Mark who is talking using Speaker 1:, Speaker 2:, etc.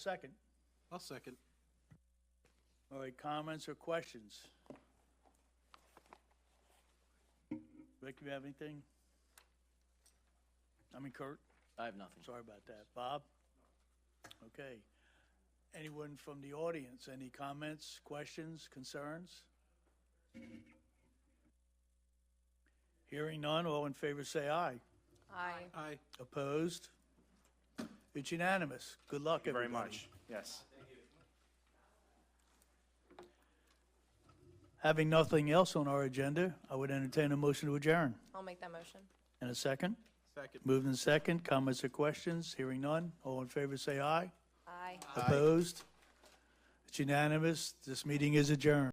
Speaker 1: Second.
Speaker 2: I'll second.
Speaker 1: All right, comments or questions? Rick, you have anything? I mean Kurt,
Speaker 3: I have nothing.
Speaker 1: sorry about that. Bob? Okay. Anyone from the audience, any comments, questions, concerns? Hearing none, all in favor say aye.
Speaker 4: Aye.
Speaker 2: Aye.
Speaker 1: Opposed? It's unanimous. Good luck,
Speaker 5: Thank you
Speaker 1: everybody.
Speaker 5: very much. Yes.
Speaker 1: Having nothing else on our agenda, I would entertain a motion to adjourn.
Speaker 4: I'll make that motion.
Speaker 1: And a second?
Speaker 2: Second.
Speaker 1: Moved in second, comments or questions? Hearing none, all in favor say aye.
Speaker 4: Aye.
Speaker 1: Opposed? It's unanimous, this meeting is adjourned.